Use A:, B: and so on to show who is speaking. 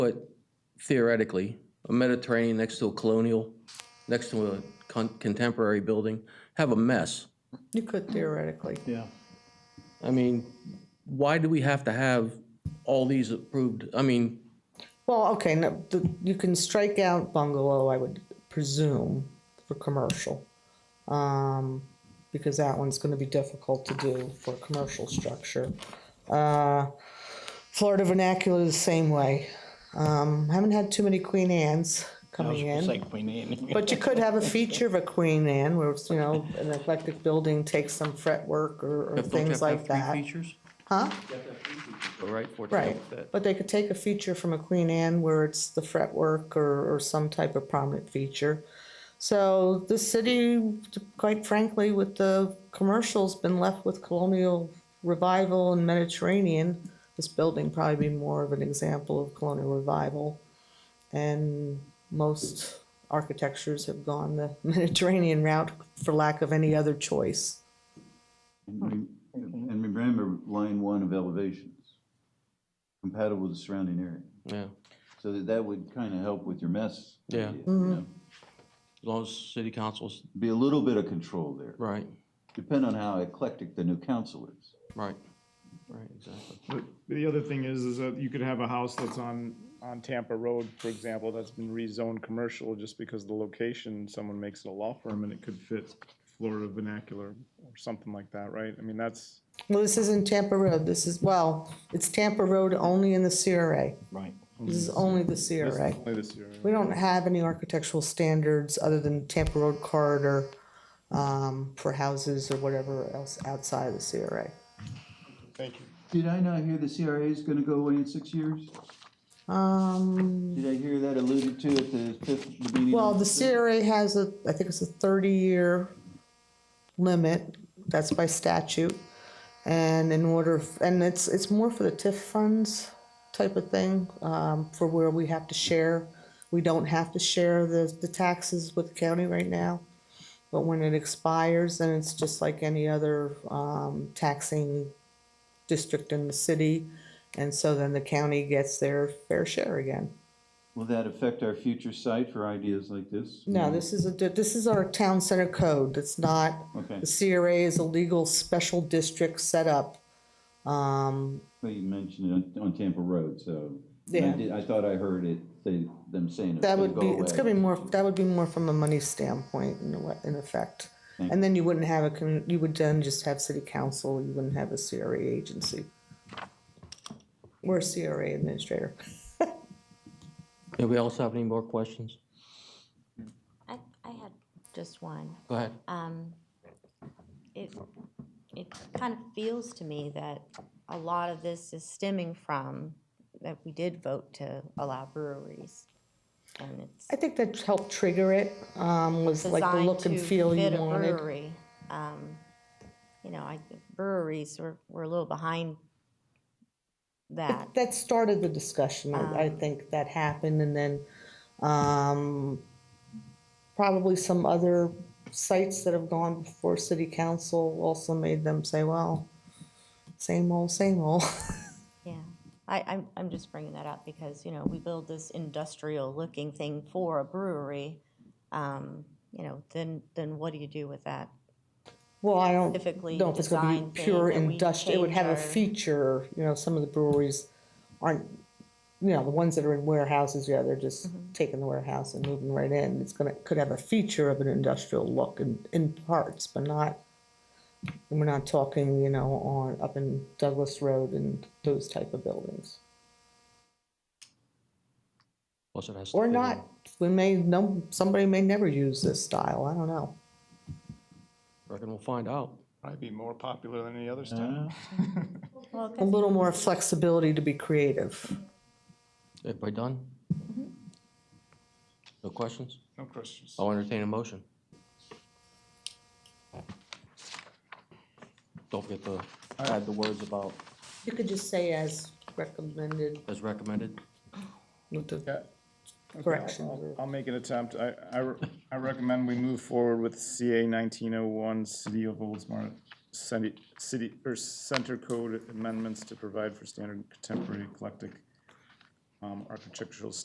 A: But theoretically, a Mediterranean next to a colonial, next to a con- contemporary building, have a mess.
B: You could theoretically.
C: Yeah.
A: I mean, why do we have to have all these approved? I mean,
B: Well, okay, no, the, you can strike out bungalow, I would presume, for commercial. Um, because that one's gonna be difficult to do for a commercial structure. Uh, Florida vernacular the same way. Um, haven't had too many Queen Anne's coming in.
C: It's like Queen Anne.
B: But you could have a feature of a Queen Anne where, it's, you know, an eclectic building takes some fretwork or,
A: don't
B: or
A: you have
B: things
A: to have
B: like
A: three
B: that.
A: features?
B: Huh?
A: All right, for it to
B: Right,
A: help that.
B: but they could take a feature from a Queen Anne where it's the fretwork or, or some type of prominent feature. So the city, quite frankly, with the commercials, been left with colonial revival and Mediterranean. This building probably be more of an example of colonial revival. And most architectures have gone the Mediterranean route for lack of any other choice. Hmm.
D: And re- And remember, line one of elevations, compatible with the surrounding area.
A: Yeah,
D: So that, that would kind of help with your mess.
A: Yeah.
D: idea, you
B: Mm-hmm.
D: know?
A: as long as city councils,
D: Be a little bit of control there,
A: right,
D: depend on how eclectic the new council is.
A: right, right, exactly.
C: But The other thing is, is that you could have a house that's on, on Tampa Road, for example, that's been rezoned commercial just because of the location, someone makes it a law firm and it could fit Florida vernacular or something like that, right? I mean, that's.
B: Well, this isn't Tampa Road, this is, well, it's Tampa Road only in the CRA.
C: Right.
B: This is only the
C: Mm-hmm. This is
B: CRA.
C: only this year.
B: We don't have any architectural standards other than Tampa Road corridor um, for houses or whatever else outside of the CRA.
C: Thank you.
D: Did I not hear the CRA is going to go away in six years?
B: Um,
D: Did I hear that alluded to at the fifth the meeting?
B: well,
D: on
B: the
D: fifth?
B: CRA has a, I think it's a thirty-year limit, that's by statute. And in order, f- and it's, it's more for the TIF funds type of thing, um, for where we have to share. We don't have to share the, the taxes with the county right now. But when it expires, then it's just like any other, um, taxing district in the city. And so then the county gets their fair share again.
D: Will that affect our future site for ideas like this?
B: No, this is a, this is our town center code, it's not,
D: Okay,
B: the CRA is a legal special district set up. Um,
D: well, you mentioned it on- on Tampa Road, so. I
B: Yeah.
D: did- I thought I heard it, say, them saying it's
B: that
D: going
B: would
D: to go
B: be,
D: away.
B: it's gonna be more, that would be more from a money standpoint in, a wa- in effect. And then you wouldn't have a, commu- you would then just have city council, you wouldn't have a CRA agency. Or a CRA administrator.
A: Anybody else have any more questions?
E: I, I had just one.
A: Go ahead.
E: Um, it, it kind of feels to me that a lot of this is stemming from that we did vote to allow breweries. And it's
B: I think that helped trigger it, um, was like the
E: designed
B: look
E: to
B: and feel you
E: fit a
B: wanted.
E: brewery. Um, You know, I, breweries, were were a little behind that.
B: That started the discussion, I, I think that happened, and then, um, probably some other sites that have gone before city council also made them say, well, same old, same old.
E: Yeah, I, I'm, I'm just bringing that up because, you know, we build this industrial looking thing for a brewery. Um, you know, then, then what do you do with that?
B: Well, I don't,
E: Specifically
B: know if it's gonna
E: designed
B: be
E: thing
B: pure
E: that we
B: industrial, it would have a
E: change our-
B: feature, you know, some of the breweries aren't, you know, the ones that are in warehouses, yeah, they're just
E: Mm-hmm.
B: taking the warehouse and moving right in, it's gonna, could have a feature of an industrial look in, in parts, but not, we're not talking, you know, on, up in Douglas Road and those type of buildings.
A: Plus it has to
B: Or
A: fit
B: not,
A: in.
B: we may, no, somebody may never use this style, I don't know.
A: Reckon we'll find out.
C: Probably be more popular than any other town.
B: A little more flexibility to be creative.
A: Everybody done?
B: Mm-hmm.
A: No questions?
C: No questions.
A: I'll entertain a motion. Don't forget to add the words about
B: You could just say as recommended
A: as recommended.
B: with the
C: Yeah. Okay,
B: Correction.
C: I'll- I'll make an attempt. I, I, re- I recommend we move forward with CA nineteen oh one, City of Oldsmar, city, city, or center code amendments to provide for standard contemporary eclectic um, architectural